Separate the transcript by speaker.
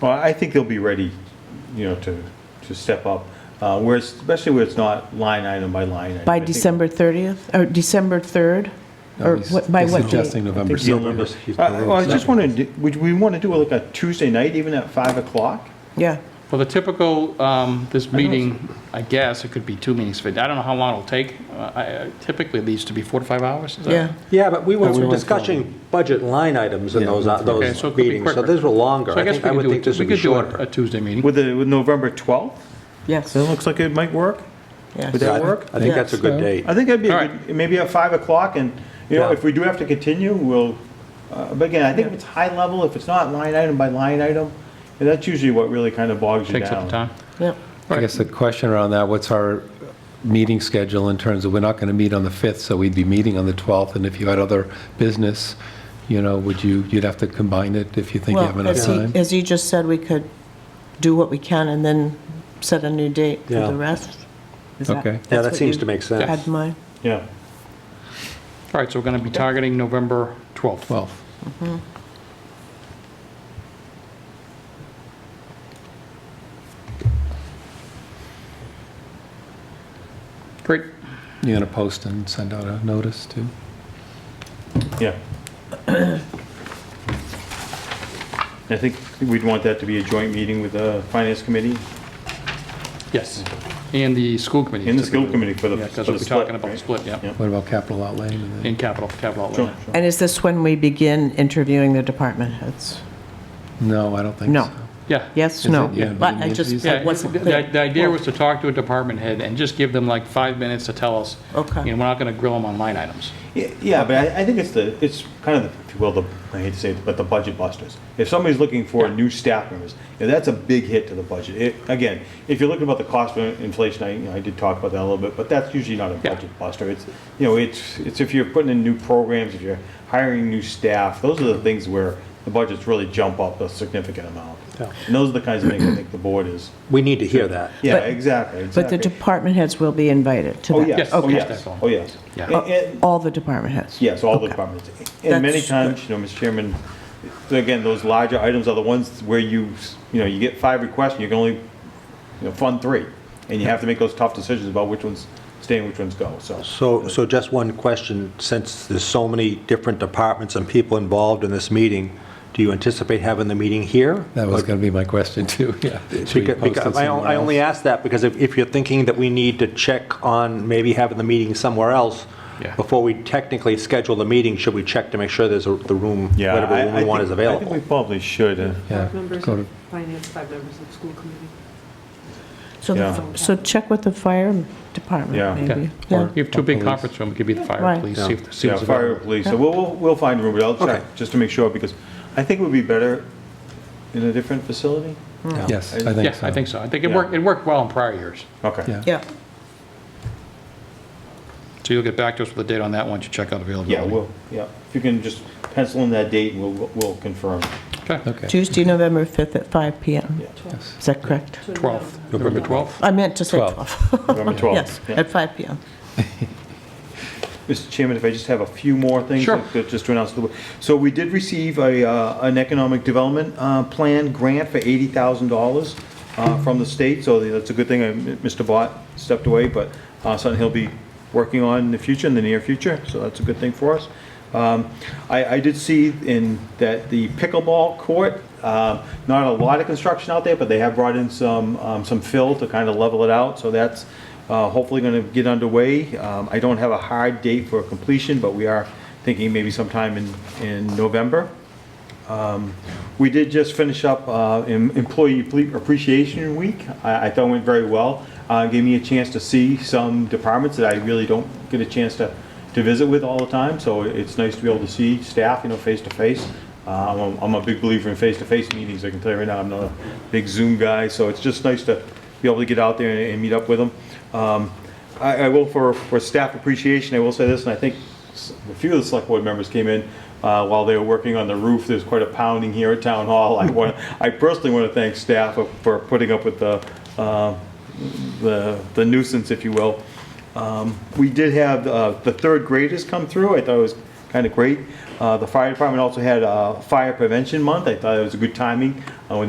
Speaker 1: Well, I think they'll be ready, you know, to, to step up, uh, where, it's- especially where it's not line item by line. item. I
Speaker 2: By
Speaker 1: think-
Speaker 2: December 30th, or December 3rd? Or
Speaker 3: He's-
Speaker 2: what- by
Speaker 3: he's
Speaker 2: what date?
Speaker 3: Suggesting
Speaker 1: I
Speaker 3: November
Speaker 1: think the numbers-
Speaker 3: 7th.
Speaker 1: I well, I just want to, would we want to do like a Tuesday night, even at 5 o'clock?
Speaker 2: Yeah,
Speaker 4: Well, the typical, um, this meeting, I guess, it could be two meetings, but I don't know how long it'll take. Uh, I- I- Typically, these to be four to five hours. is that-
Speaker 2: yeah.
Speaker 5: Yeah, but we were
Speaker 3: That's what
Speaker 5: we
Speaker 3: I
Speaker 5: were
Speaker 3: thought.
Speaker 5: discussing budget line items in those, uh,
Speaker 4: Okay,
Speaker 5: those
Speaker 4: so it could be
Speaker 5: meetings, so
Speaker 4: quicker.
Speaker 5: those were longer.
Speaker 4: So I
Speaker 5: I
Speaker 4: guess
Speaker 5: think,
Speaker 4: we
Speaker 5: I
Speaker 4: could
Speaker 5: would
Speaker 4: do,
Speaker 5: think
Speaker 4: it-
Speaker 5: this
Speaker 4: we
Speaker 5: would be
Speaker 4: could do it a
Speaker 5: shorter.
Speaker 4: Tuesday meeting.
Speaker 1: With the, with November 12th?
Speaker 2: Yes,
Speaker 1: That looks like it might work.
Speaker 2: yes.
Speaker 1: Would that
Speaker 5: Yeah,
Speaker 1: work?
Speaker 5: I think
Speaker 2: Yeah.
Speaker 5: that's a good date.
Speaker 1: I think that'd be, a
Speaker 4: All
Speaker 1: good maybe at 5 o'clock, and, you know,
Speaker 5: Yeah.
Speaker 1: if we do have to continue, we'll, uh, but again, I think if it's high level, if it's not line item by line item, and that's usually what really kind of bogs you down.
Speaker 4: Takes up the time.
Speaker 2: Yep.
Speaker 3: I guess the question around that, what's our meeting schedule in terms of, we're not going to meet on the 5th, so we'd be meeting on the 12th, and if you had other business, you know, would you, you'd have to combine it if you think you have
Speaker 2: Well,
Speaker 3: enough
Speaker 2: as he,
Speaker 3: time?
Speaker 2: as he just said, we could do what we can and then set a new date for
Speaker 5: Yeah.
Speaker 2: the rest. Is
Speaker 3: Okay. Yeah,
Speaker 2: that's
Speaker 5: Yeah, that
Speaker 2: what
Speaker 5: seems
Speaker 2: you
Speaker 5: to make sense.
Speaker 2: Had in mind?
Speaker 1: Yeah.
Speaker 4: All right, so we're going to be targeting November 12th.
Speaker 3: 12th.
Speaker 4: Great.
Speaker 3: You're going to post and send out a notice too?
Speaker 1: Yeah. I think we'd want that to be a joint meeting with the finance committee
Speaker 4: Yes. And the school committee.
Speaker 1: and the school committee for the
Speaker 4: Yeah,
Speaker 1: for
Speaker 4: because
Speaker 1: the
Speaker 4: we're
Speaker 1: split.
Speaker 4: talking about the
Speaker 1: right?
Speaker 4: split, yeah.
Speaker 1: Yeah.
Speaker 3: What about capital outlay? and then-
Speaker 4: In capital, capital
Speaker 1: Sure,
Speaker 4: outlay.
Speaker 1: sure.
Speaker 2: And is this when we begin interviewing the department heads?
Speaker 3: No, I don't think
Speaker 2: No.
Speaker 3: so.
Speaker 4: Yeah.
Speaker 2: Yes,
Speaker 3: Is
Speaker 2: no?
Speaker 3: it- yeah,
Speaker 2: But I just,
Speaker 3: interviews?
Speaker 4: Yeah,
Speaker 2: I wasn't clear.
Speaker 4: the the idea was to talk to a department head and just give them like five minutes to tell us.
Speaker 2: Okay.
Speaker 4: You know, we're not going to grill them on line items.
Speaker 1: Yeah, Yeah, but I, I think it's the, it's kind of, the- if you will, the, I hate to say it, but the budget busters. If somebody's looking for new staff members, yeah, that's a big hit to the budget. It, again, if you're looking about the cost of inflation, I, you know, I did talk about that a little bit, but that's usually not a
Speaker 4: Yeah.
Speaker 1: budget buster. It's, you know, it's, it's if you're putting in new programs, if you're hiring new staff, those are the things where the budgets really jump up a significant amount.
Speaker 5: Yeah.
Speaker 1: And those are the kinds of things I think the board is,
Speaker 5: We need to hear that.
Speaker 1: yeah,
Speaker 2: But-
Speaker 1: exactly,
Speaker 2: But the
Speaker 1: exactly.
Speaker 2: department heads will be invited to
Speaker 1: Oh,
Speaker 2: that?
Speaker 1: yes,
Speaker 4: Yes,
Speaker 1: oh,
Speaker 4: yes,
Speaker 1: yes,
Speaker 4: that's all.
Speaker 1: oh, yes.
Speaker 4: Yeah.
Speaker 1: And- and-
Speaker 2: All the department heads?
Speaker 1: Yes, all the
Speaker 2: Okay.
Speaker 1: departments. And many
Speaker 2: That's
Speaker 1: times, you know, Mr. Chairman, again, those larger items are the ones where you, you know, you get five requests and you can only, you know, fund three. And you have to make those tough decisions about which ones stay and which ones go, so.
Speaker 5: So, so just one question, since there's so many different departments and people involved in this meeting, do you anticipate having the meeting here?
Speaker 3: That was going to be my question too, yeah. Should we
Speaker 5: Because-
Speaker 3: post it
Speaker 5: because I on- I
Speaker 3: somewhere
Speaker 5: only
Speaker 3: else?
Speaker 5: ask that because if, if you're thinking that we need to check on maybe having the meeting somewhere else,
Speaker 4: Yeah.
Speaker 5: before we technically schedule the meeting, should we check to make sure there's a- the room, whatever room we want is
Speaker 1: I think we
Speaker 5: available?
Speaker 1: probably should. uh,
Speaker 3: Yeah,
Speaker 6: Five members
Speaker 3: go
Speaker 6: of
Speaker 3: to-
Speaker 6: finance, five members of school committee.
Speaker 2: So, the-
Speaker 1: Yeah.
Speaker 2: so check with the fire
Speaker 1: Yeah.
Speaker 2: department,
Speaker 4: Yeah.
Speaker 2: maybe?
Speaker 4: Or if you have two big
Speaker 3: Police.
Speaker 4: conference rooms, it could be the fire,
Speaker 2: Right.
Speaker 4: police, see if the
Speaker 1: Yeah,
Speaker 4: seals
Speaker 1: fire,
Speaker 4: available.
Speaker 1: police, so we'll, we'll- we'll find room, but I'll
Speaker 5: Okay.
Speaker 1: check, just to make sure, because I think it would be better in a different facility.
Speaker 3: Yes, I think
Speaker 4: Yeah,
Speaker 3: so.
Speaker 4: I think so. I think it
Speaker 1: uh, Yeah.
Speaker 4: worked, it worked well in prior years.
Speaker 1: Okay.
Speaker 3: Yeah.
Speaker 2: Yeah,
Speaker 4: So you'll get back to us with a date on that once you check out availability.
Speaker 1: Yeah, we'll, yeah, if you can just pencil in that date and we'll, we'll confirm.
Speaker 4: Okay,
Speaker 3: Okay.
Speaker 2: Tuesday, November 5th at five PM.
Speaker 3: Yes.
Speaker 2: Is that correct?
Speaker 4: 12th, November 12th.
Speaker 2: I meant to say
Speaker 3: Twelve.
Speaker 2: 12.
Speaker 1: November 12th.
Speaker 2: Yes,
Speaker 1: Yeah.
Speaker 2: at five PM.
Speaker 1: Mr. Chairman, if I just have a few more things.
Speaker 4: Sure.
Speaker 1: to- Just to announce. to the board. So we did receive a, uh, an economic development uh, plan grant for $80,000 uh, from the state, so that's a good thing. Uh, Mr. Bott stepped away, but uh, something he'll be working on in the future, in the near future, so that's a good thing for us. Um, I, I did see in, that the pickleball court, uh, not a lot of construction out there, but they have brought in some, um, some fill to kind of level it out, so that's uh, hopefully going to get underway. Um, I don't have a hard date for completion, but we are thinking maybe sometime in, in November. Um, We did just finish up uh, em- Employee Ple- Appreciation Week. I I thought it went very well. Uh, Gave me a chance to see some departments that I really don't get a chance to, to visit with all the time, so it's nice to be able to see staff, you know, face to face. Uh, I'm a- I'm a big believer in face-to-face meetings, I can tell you right now, I'm not a big Zoom guy, so it's just nice to be able to get out there and- and meet up with them. Um, I, I will, for, for staff appreciation, I will say this, and I think s- a few of the select board members came in uh, while they were working on the roof, there's quite a pounding here at Town Hall. I want, I personally want to thank staff for- for putting up with the, uh, the the nuisance, if you will. Um, We did have uh, the third graders come through, I thought it was kind of great. Uh, The fire department also had uh, Fire Prevention Month, I thought it was a good timing uh, when they